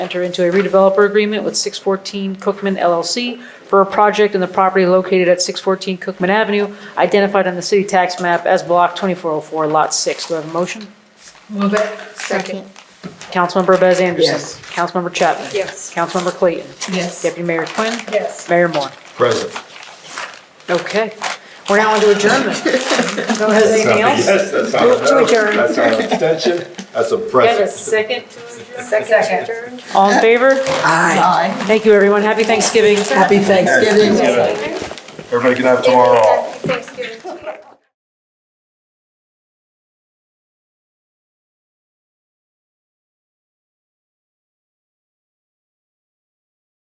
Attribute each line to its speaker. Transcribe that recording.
Speaker 1: enter into a redeveloper agreement with 614 Cookman LLC for a project in the property located at 614 Cookman Avenue, identified on the city tax map as Block 2404, Lot 6. Do I have a motion?
Speaker 2: Move it. Second.
Speaker 1: Councilmember Bez Anderson.
Speaker 2: Yes.
Speaker 1: Councilmember Chapman.
Speaker 2: Yes.
Speaker 1: Councilmember Clayton.
Speaker 2: Yes.
Speaker 1: Deputy Mayor Quinn.
Speaker 2: Yes.
Speaker 1: Mayor Moore.
Speaker 3: Present.
Speaker 1: Okay, we're now into adjournment. No, has anything else?
Speaker 3: Yes, that's not a
Speaker 1: Move to
Speaker 3: no,
Speaker 1: adjourn.
Speaker 3: That's not an abstention, that's a
Speaker 1: Got a
Speaker 3: present.
Speaker 1: second?
Speaker 2: Second.
Speaker 1: All in favor?
Speaker 2: Aye.
Speaker 1: Thank you, everyone. Happy Thanksgiving.
Speaker 2: Happy Thanksgiving.
Speaker 3: Everybody can have tomorrow off.